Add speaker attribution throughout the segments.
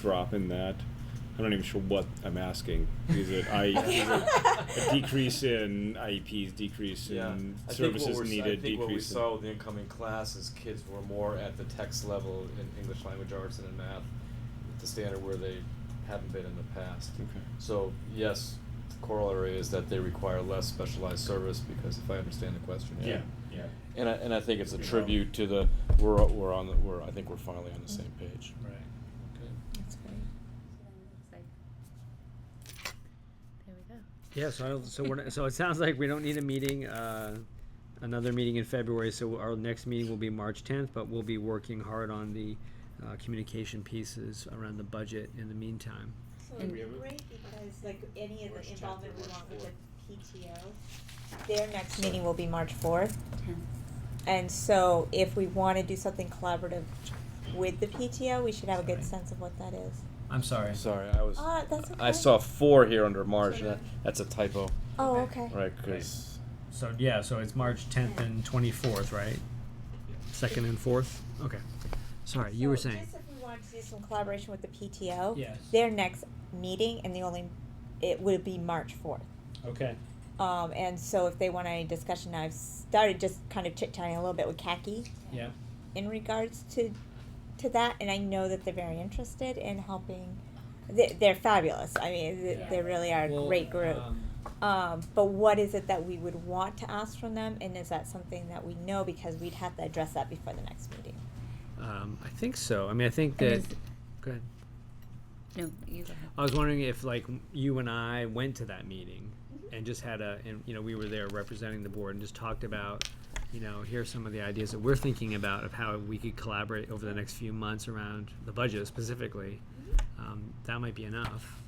Speaker 1: drop in that. I'm not even sure what I'm asking. Is it I is it a decrease in IEPs, decrease
Speaker 2: Yeah,
Speaker 1: in
Speaker 2: I think what
Speaker 1: services
Speaker 2: we're, s- I
Speaker 1: needed,
Speaker 2: think what we
Speaker 1: decrease in
Speaker 2: saw with the incoming class is kids were more at the text level in English language arts and in math, the standard where they haven't been in the past.
Speaker 1: Okay.
Speaker 2: So yes, the corollary is that they require less specialized service because if I understand the question, yeah.
Speaker 3: Yeah, yeah.
Speaker 2: And I, and I think it's a
Speaker 3: We know.
Speaker 2: tribute to the, we're, we're on the, we're, I think we're finally on the same page.
Speaker 3: Right.
Speaker 4: That's great. There we go.
Speaker 5: Yeah, so I don't, so we're not, so it sounds like we don't need a meeting, uh, another meeting in February. So our next meeting will be March 10th, but we'll be working hard on the uh, communication pieces around the budget in the meantime.
Speaker 6: So
Speaker 4: And-
Speaker 6: it'd be great because like any of
Speaker 3: March
Speaker 6: the
Speaker 3: 10th
Speaker 6: involvement
Speaker 3: or
Speaker 6: we
Speaker 3: March
Speaker 6: want with the PTO, their next meeting will be March fourth. And so if we wanna do something collaborative with the PTO, we should have a good
Speaker 3: Sorry.
Speaker 6: sense of what that is.
Speaker 3: I'm sorry.
Speaker 2: Sorry, I was,
Speaker 6: Ah, that's okay.
Speaker 2: I saw four here under March, and
Speaker 6: Sorry.
Speaker 2: that, that's a typo,
Speaker 6: Oh,
Speaker 4: Okay.
Speaker 6: okay.
Speaker 2: right, cause,
Speaker 5: So yeah, so it's March 10th and 24th, right? Second and fourth. Okay. Sorry, you were
Speaker 6: So
Speaker 5: saying.
Speaker 6: Just if we wanted to do some collaboration with the PTO.
Speaker 5: Yes.
Speaker 6: Their next meeting and the only, it would be March fourth.
Speaker 5: Okay.
Speaker 6: Um, and so if they want any discussion, I've started just kind of chit chatting a little bit with Khaki
Speaker 5: Yeah.
Speaker 6: in regards to to that, and I know that they're very interested in helping. They, they're fabulous. I mean, th- they
Speaker 4: Yeah.
Speaker 6: really are a great group. Um, but what is it that we would want to ask from them, and is that something that we know because we'd have to address that before the next meeting?
Speaker 5: Um, I think so. I mean, I think
Speaker 4: And
Speaker 5: that.
Speaker 4: is-
Speaker 5: Go ahead.
Speaker 4: No, you go
Speaker 5: I was wondering if like you and I went to that meeting and just had a and you know we were there representing the board and just talked about you know here are some of the ideas that we're thinking about of how we could collaborate over the next few months around the budget specifically. Um, that might be enough.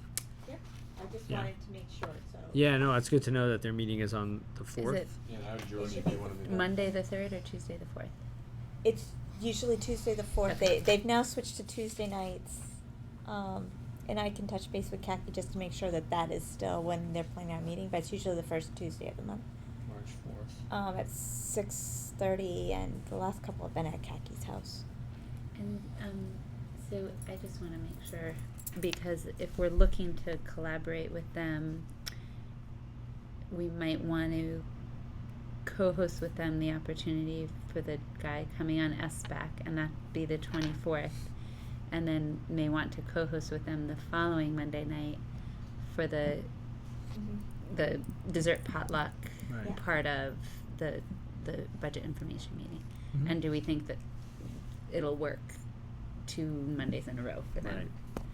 Speaker 6: I just
Speaker 5: Yeah.
Speaker 6: wanted to make sure. So
Speaker 5: Yeah, no, it's good to know that their meeting is on the
Speaker 4: ahead.
Speaker 5: fourth.
Speaker 4: Is it
Speaker 2: yeah, I would
Speaker 6: Jordan, if you wanna do
Speaker 4: Monday the third or Tuesday the fourth?
Speaker 6: it's usually Tuesday the fourth.
Speaker 4: Okay.
Speaker 6: They they've now switched to Tuesday nights, um, and I can touch base with Khaki just to make sure that that is still when they're planning our meeting. But it's usually the first Tuesday of the month.
Speaker 5: March fourth.
Speaker 6: um, at six thirty, and the last couple have been at Kaki's house.
Speaker 4: And um, so I just want to make sure because if we're looking to collaborate with them, we might want to co-host with them the opportunity for the guy coming on SBAC, and that'd be the twenty fourth. And then may want to co-host with them the following Monday night for the
Speaker 7: Mm-hmm.
Speaker 4: the dessert potluck
Speaker 5: Right.
Speaker 6: Yeah.
Speaker 4: part of the the budget information meeting.
Speaker 5: Mhm.
Speaker 4: And do we think that it'll work two Mondays in a row for them?
Speaker 5: Right.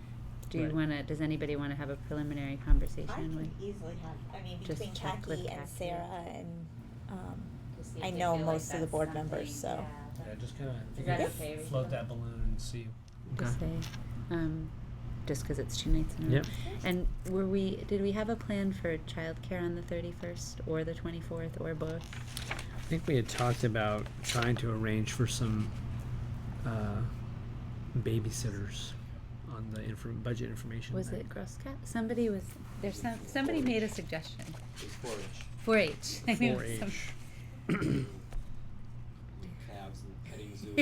Speaker 4: Do you
Speaker 5: Right.
Speaker 4: wanna does anybody wanna have a preliminary conversation with
Speaker 6: easily have. I mean,
Speaker 4: Just
Speaker 6: between
Speaker 4: check with
Speaker 6: Kaki and
Speaker 4: Khaki.
Speaker 6: Sarah and um,
Speaker 7: see if
Speaker 6: I
Speaker 7: they
Speaker 6: know
Speaker 7: feel like
Speaker 6: most of the
Speaker 7: that's
Speaker 6: board members,
Speaker 7: something-
Speaker 6: so-
Speaker 7: yeah, that-
Speaker 5: just kind
Speaker 7: Is that okay with you?
Speaker 5: balloon and see. Okay.
Speaker 4: just say um just 'cause it's two nights in a row.
Speaker 5: Yep.
Speaker 4: And were we did we have a plan for childcare on the thirty first or the twenty fourth or both?
Speaker 5: I think we had talked about trying to arrange for some uh, babysitters on the infor- budget information.
Speaker 4: Was
Speaker 5: thing.
Speaker 4: it Girl Scout? Somebody was there's some somebody made a suggestion.
Speaker 2: It's four inch.
Speaker 4: Four H. I knew it was
Speaker 5: 4-H.
Speaker 4: some-
Speaker 2: Calves and petting zoo.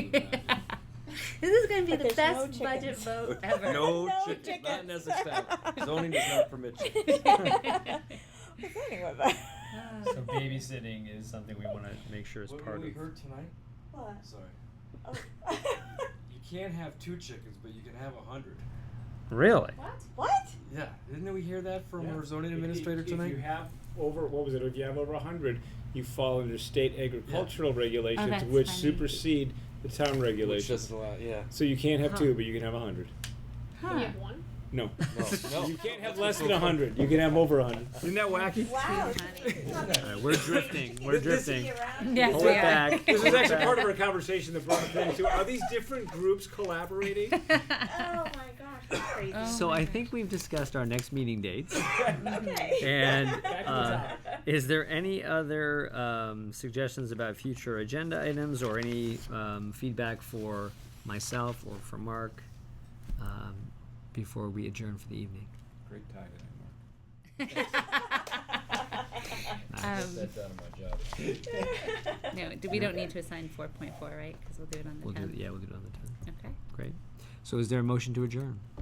Speaker 4: this is going to be
Speaker 6: But
Speaker 4: the
Speaker 6: there's no
Speaker 4: best budget
Speaker 6: chickens.
Speaker 4: vote ever.
Speaker 2: No
Speaker 6: No
Speaker 2: chickens, not
Speaker 6: chickens.
Speaker 2: necessary. Zoning does not permit chickens.
Speaker 6: But anyway, but-
Speaker 4: Ah.
Speaker 5: So babysitting is something we want to make sure is
Speaker 2: What
Speaker 5: part
Speaker 2: we
Speaker 5: of.
Speaker 2: heard tonight?
Speaker 6: What?
Speaker 2: Sorry.
Speaker 6: Oh.
Speaker 2: You can't have two chickens, but you can have a hundred.
Speaker 5: Really?
Speaker 7: What?
Speaker 6: what?
Speaker 2: Yeah, didn't we hear that from
Speaker 1: Yeah.
Speaker 2: our zoning
Speaker 1: If- if-
Speaker 2: administrator
Speaker 1: If
Speaker 2: tonight?
Speaker 1: you have over, what was it, if you have over hundred, you fall under state agricultural regulations,
Speaker 4: Oh, that's
Speaker 1: which
Speaker 4: funny.
Speaker 1: supersede the town
Speaker 2: Which
Speaker 1: regulations.
Speaker 2: doesn't allow, yeah.
Speaker 1: So you can't have
Speaker 4: Huh.
Speaker 1: two, but you can have a hundred.
Speaker 4: Huh.
Speaker 7: one?
Speaker 1: No.
Speaker 2: No, no.
Speaker 1: You can't have less than a hundred, you can have over a hundred. Isn't that wacky?
Speaker 6: Wow.
Speaker 5: Alright, we're drifting. We're drifting.
Speaker 4: Yes,
Speaker 5: Pull
Speaker 4: we
Speaker 5: it
Speaker 4: are.
Speaker 5: back.
Speaker 1: This is actually part of our conversation that brought the thing to, are these different groups collaborating?
Speaker 6: Oh my gosh, that's crazy.
Speaker 4: Oh
Speaker 5: So
Speaker 4: my
Speaker 5: I
Speaker 4: gosh.
Speaker 5: think we've discussed our next meeting dates.
Speaker 6: okay.
Speaker 5: And, uh, Is there any other um, suggestions about future agenda items or any um, feedback for myself or for Mark um, before we adjourn for the evening?
Speaker 2: Great tie today,
Speaker 4: um,
Speaker 2: down on my job.
Speaker 4: no, d- we don't need to assign 4.4, right? Because we'll do it on the
Speaker 5: We'll do
Speaker 4: 10th.
Speaker 5: it. Yeah, we'll do it on the tenth.
Speaker 4: Okay.
Speaker 5: Great. So, is there a motion to adjourn?